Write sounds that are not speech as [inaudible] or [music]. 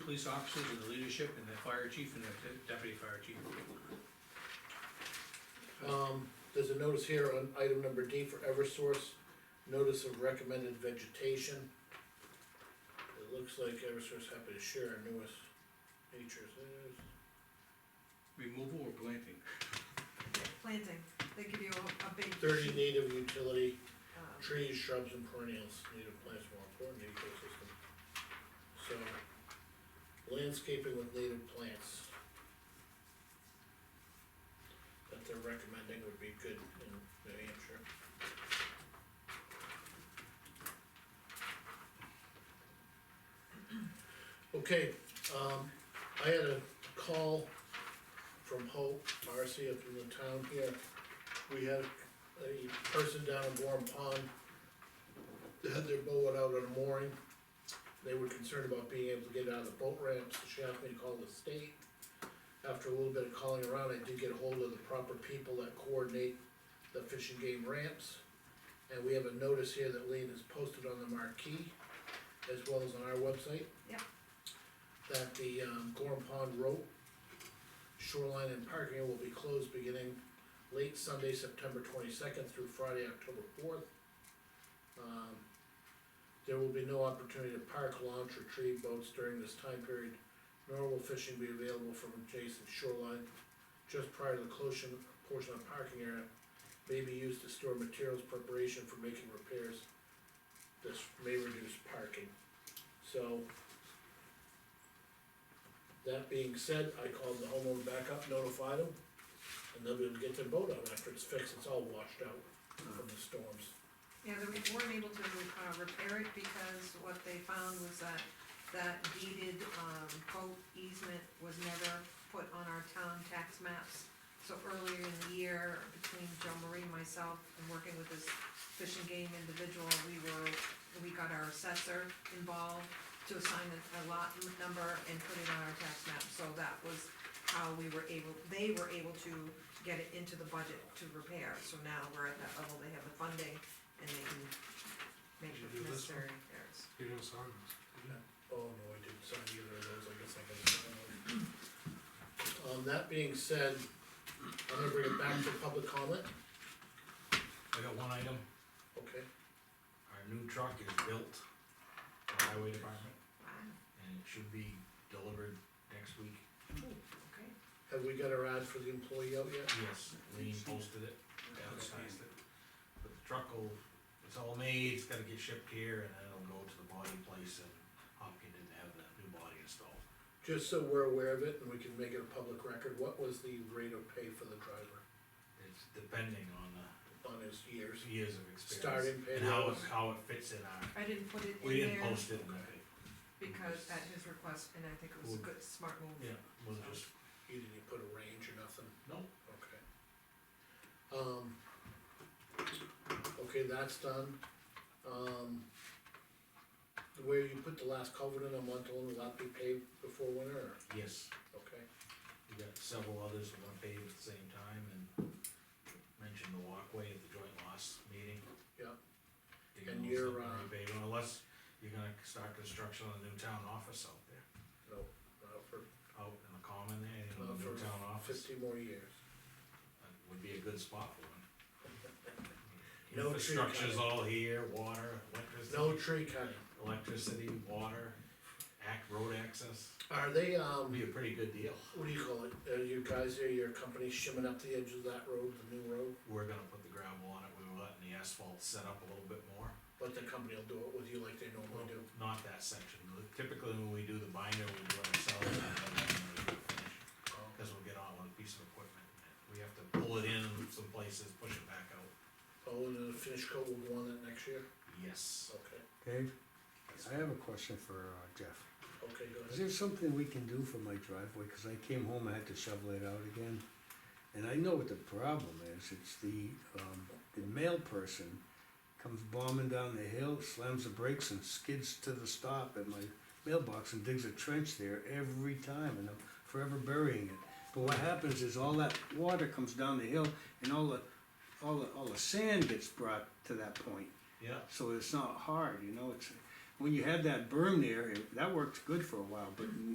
police officers and the leadership and the fire chief and the de- deputy fire chief. Um, there's a notice here on item number D for Eversource, notice of recommended vegetation. It looks like Eversource happy to share our newest features, There's- Removal or planting? planting, they give you a, a big. thirty native utility um, trees, shrubs and perennials, native plants more important to ecosystem. So, landscaping with native plants. That they're recommending would be good in New Hampshire. Okay, um, I had a call from Hope, Marcia from the town here. We had a person down in Warren Pond that had their boat out on a mooring. They were concerned about being able to get out of the boat ramps, she asked me to call the state. After a little bit of calling around, I did get hold of the proper people that coordinate the fishing game ramps. And we have a notice here that Lean has posted on the marquee, as well as on our website. Yep. That the, um, Gorham Pond Road shoreline and parking area will be closed beginning late Sunday, September twenty-second through Friday, October fourth. Um, there will be no opportunity to park, launch, or trade boats during this time period, nor will fishing be available from adjacent shoreline. Just prior to the closure, portion of parking area may be used to store materials preparation for making repairs. This may reduce parking, so. That being said, I called the homeowner back up, notified him, and they'll be able to get their boat out after it's fixed, it's all washed out from the storms. Yeah, they weren't able to, uh, repair it because what they found was that that deeded, um, boat easement was never put on our town tax maps. So earlier in the year, between Joe Marie, myself, and working with this fish and game individual, we were, we got our assessor involved to assign a a lot n- number and put it on our tax map, so that was how we were able, they were able to get it into the budget to repair, so now we're at that level, they have the funding and they can make Did you do the this one? necessary repairs. You didn't sign this. Oh, no, I didn't sign either of those, I guess I can. Um, that being said, I'm gonna bring it back for public comment, I got one item, okay? our new truck is built, for the highway department, Wow, and it should be delivered next week. okay. Have we got our ad for the employee out yet? Yes. Lean posted it outside, but the truck will, it's all made, it's gotta get shipped here, and then it'll go to the body place, and Hopkins didn't have the new body installed. Just so we're aware of it and we can make it a public record, what was the rate of pay for the driver It's depending on the on his years? years of experience. Starting pay And how it, levels. how it fits in our, I didn't put it we in didn't there post it, in the- because at his request, and I think it was a good, smart move. yeah, wasn't just, You didn't put a range or nothing? no, Okay. Um, okay, that's done. Um, where you put the last culvert in on Montalona, will that be paved before winter, or, yes. okay? We got several others we're gonna pave at the same time and mentioned the walkway at the joint loss meeting. Yeah. And Digging those you're, up uh, repave, unless you're gonna start construction on a new town office out there, No, not for out in the common there, you know, Not the for new town office. fifty more years. That Would be a good spot for one. [laughs] No tree Infrastructure's cutting. all here, water, electricity. No tree cutting. Electricity, water, act, road access, Are they, um, would be a pretty good deal. what do you call it, are you guys, are your company shimming up the edge of that road, the new road? We're gonna put the gravel on it, we were letting the asphalt set up a little bit more. But the company will do it with you like they Oh. normally do. Not that section, typically when we do the binder, we do it ourselves, and then we do the finish, Oh, cause we'll get on one piece of equipment, and we have to pull it in some places, push it back out. Oh, and then the finish coat will go on that next year? Yes, Okay, Dave, I have a question for uh, Jeff. okay, go Is ahead. there something we can do for my driveway? Because I came home, I had to shovel it out again. And I know what the problem is. It's the, um, the mail person comes bombing down the hill, slams the brakes and skids to the stop at my mailbox and digs a trench there every time and I'm forever burying it. But what happens is all that water comes down the hill and all the, all the, all the sand gets brought to that point. yeah, so it's not hard, you know, it's, when you had that berm there, it- that worked good for a while, but